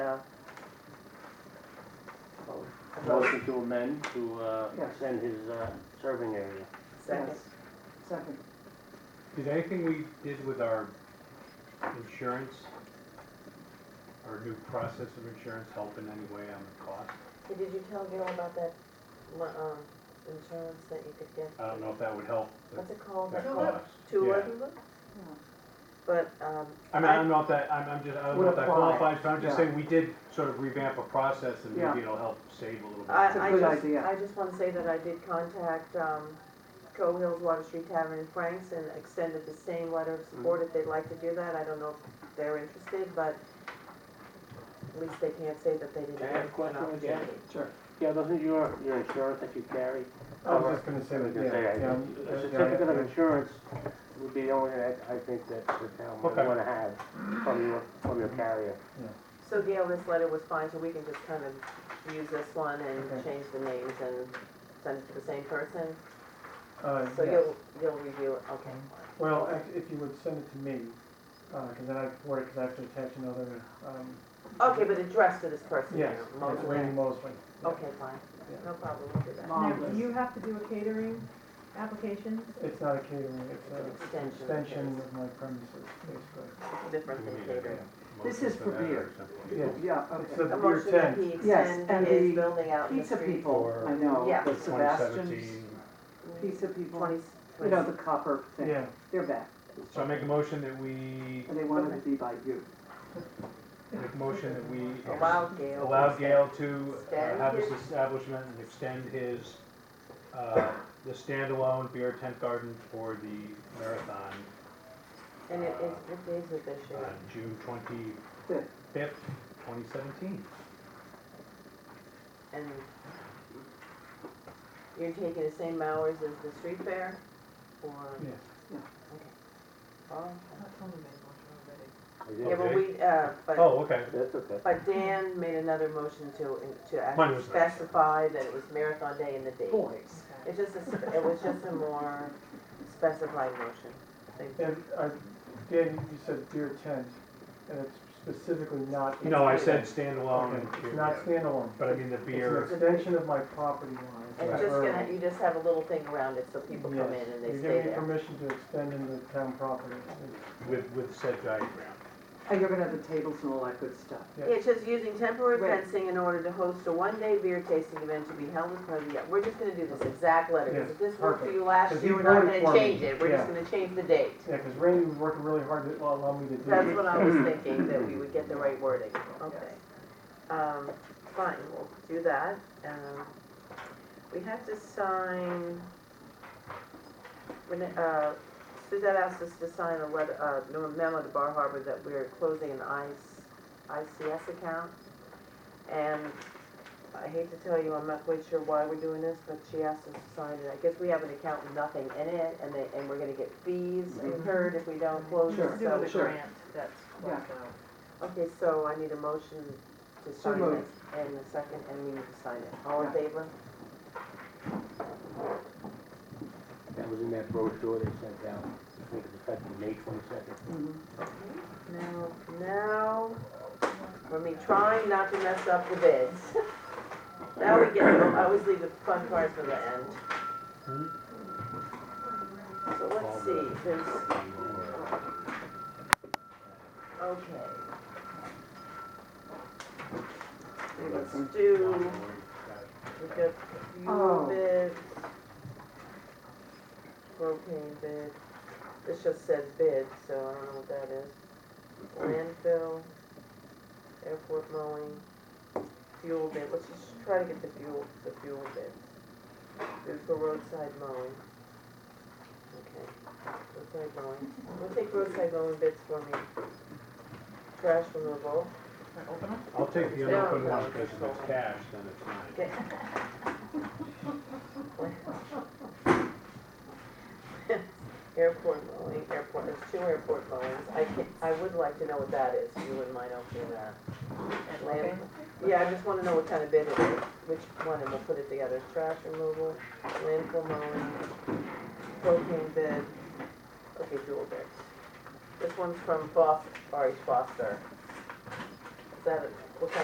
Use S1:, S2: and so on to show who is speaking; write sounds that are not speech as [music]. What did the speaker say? S1: Motion to amend to uh,
S2: Yes.
S1: extend his uh, serving area.
S3: Second.
S2: Second,
S4: Did anything we did with our insurance, our new process of insurance help in any way on the cost?
S3: Hey, Did you tell Gail about that, mu- um, insurance that you could get?
S4: I don't know if that would help the
S3: What's it called?
S4: that
S3: Tulip?
S4: cost.
S3: Tulip?
S4: Yeah.
S3: But, um,
S4: I mean, I don't know if that, I'm, I'm just, I don't know
S2: Would
S4: if that
S2: apply,
S4: qualifies, but I'm just
S2: yeah.
S4: saying we did sort of revamp a process and
S2: Yeah.
S4: maybe it'll help save a little bit.
S3: I,
S2: It's a
S3: I
S2: good
S3: just,
S2: idea.
S3: I just wanna say that I did contact, um, Coe Hills Water Street Tavern in Franks and extended the same letter of
S1: Mm.
S3: support if they'd like to do that. I don't know if they're interested, but at least they can't say that they didn't.
S1: Can I have a question with you?
S2: sure.
S1: Yeah, doesn't your, your insurance that you carry
S5: I
S1: cover?
S5: was just gonna say
S1: I
S5: that,
S1: was gonna say,
S5: yeah,
S1: I-
S5: yeah,
S1: A
S5: yeah,
S1: certificate of
S5: yeah.
S1: insurance would be the only that I think that the town would
S4: Okay.
S1: wanna have from your, from your carrier.
S3: So Gail, this letter was fine, so we can just kind of use this one and
S5: Okay.
S3: change the names and send it to the same person?
S5: Uh,
S3: So
S5: yes.
S3: you'll, you'll review it, okay.
S5: Well, if- if you would send it to me, uh 'cause cause then I can forward it, cause I have to attach another, um,
S3: Okay, but address to this person
S5: yes,
S3: here,
S5: it's
S3: Mosley.
S5: Randy Mosley. yeah.
S3: Okay, fine,
S5: Yeah.
S3: no problem, we'll do that.
S6: Now,
S2: Marvelous.
S6: do you have to do a catering application?
S5: It's not a catering, it's
S3: It's an
S5: a
S3: extension. of
S5: extension
S3: his-
S5: of my premises, basically.
S3: Different
S4: We
S3: than
S4: need to
S3: catering.
S4: get a
S2: This
S4: motion
S2: is for
S4: that or
S2: beer.
S4: something.
S5: Yeah.
S2: Yeah,
S5: It's the
S2: okay.
S3: A
S5: beer
S3: motion that he
S5: tent,
S2: Yes,
S3: extend
S2: and
S3: his
S2: the
S3: building out in the
S2: Pizza
S3: street.
S2: people, I know,
S3: Yeah.
S2: the Sebastians,
S4: 2017.
S2: pizza people,
S3: Twenty,
S2: you know,
S3: twenty,
S2: the copper thing,
S5: yeah,
S2: they're back,
S4: So I make a motion that we,
S2: and they wanted to be by you.
S4: make a motion that we
S3: allow Gail.
S4: allow Gail to uh,
S3: Extend
S4: have his
S3: his-
S4: establishment and extend his, uh, the standalone beer tent garden for the marathon
S3: And it is, what day is it this year?
S4: on June
S2: Fifth.
S4: twenty-fifth, twenty seventeen.
S3: And you're taking the same hours as the street fair, or?
S5: yes.
S3: Oh,
S1: I
S3: okay.
S1: did.
S3: Yeah, but we, uh, but,
S4: Oh, okay.
S1: That's okay.
S3: but Dan made another motion to, to
S4: Mine
S3: actually
S4: was nice.
S3: specify that it was marathon day and the date.
S2: Boys.
S3: It's just, a sp- it was just a more specified motion. Thank you.
S5: And I, Dan, you said beer tent, and it's specifically not.
S4: No, I said standalone
S5: Okay,
S4: and
S5: It's
S4: beer,
S5: not
S4: yeah.
S5: standalone,
S4: but I mean the beer.
S5: it's an extension of my property line.
S3: And
S4: Right.
S3: just gonna, you just have a little thing around it so people come
S5: Yes,
S3: in and they
S5: you're
S3: stay
S5: giving me
S3: there.
S5: permission to extend into town property,
S4: With, with said diagram.
S2: And you're gonna have the tables and all that good stuff.
S5: yeah.
S3: It's just using temporary
S2: Right.
S3: fencing in order to host a one-day beer tasting event to be held as part of the, we're just gonna do this exact letter. 'cause If this worked for you last
S5: Because
S3: year,
S5: he
S3: we're not
S5: wrote it
S3: gonna
S5: for me.
S3: change it, we're just
S5: Yeah.
S3: gonna change the date.
S5: Yeah, because Randy was working really hard to allow me to do
S3: That's
S5: it.
S3: what I was thinking, that we would get the right wording, okay. Um, fine, we'll do that, um, we have to sign, when, uh, Suzette asked us to sign a letter, uh, no, a memo to Bar Harbor that we're closing an IC ICS account. And I hate to tell you, I'm not quite sure why we're doing this, but she asked us to sign it, I guess we have an account with nothing in it, and they, and we're gonna get fees incurred if we don't close it, so.
S2: Sure.
S6: Do with a
S2: Sure.
S6: grant that's uh, closed out.
S3: Okay, so I need a motion to sign it,
S2: moved.
S3: and a second, and we need to sign it. All in
S2: Yeah.
S3: favor?
S1: That was in that brochure they sent out, I think it's effective May twenty-second.
S2: Mhm.
S3: Now, now, we're me trying not to mess up the bids. [laughs] Now we get, them. I always leave the fun part for the end.
S4: Hmm.
S3: So let's see, there's, okay, let's do, we got fuel
S2: Oh.
S3: bid, propane bid. This just says bid, so I don't know what that is. Landfill, airport mowing, fuel bid, let's just try to get the fuel, the fuel bid. Bid for roadside mowing. Okay, roadside mowing, we'll take roadside mowing bids for me. Trash removal,
S6: Can I open them?
S4: I'll take the
S3: No,
S4: unopened
S3: no,
S4: one
S3: it's
S4: because if it's
S3: not.
S4: cash, then it's mine.
S3: okay. Airport mowing, airport, there's two airport mowings, I can, I would like to know what that is, if you wouldn't mind opening that.
S6: And
S3: Land-
S6: open?
S3: Yeah, I just wanna know what kind of bid it is, which one, and we'll put it together, trash removal, landfill mowing, propane bid, okay, dual bids. This one's from Foster, Ari Foster. Is that, a-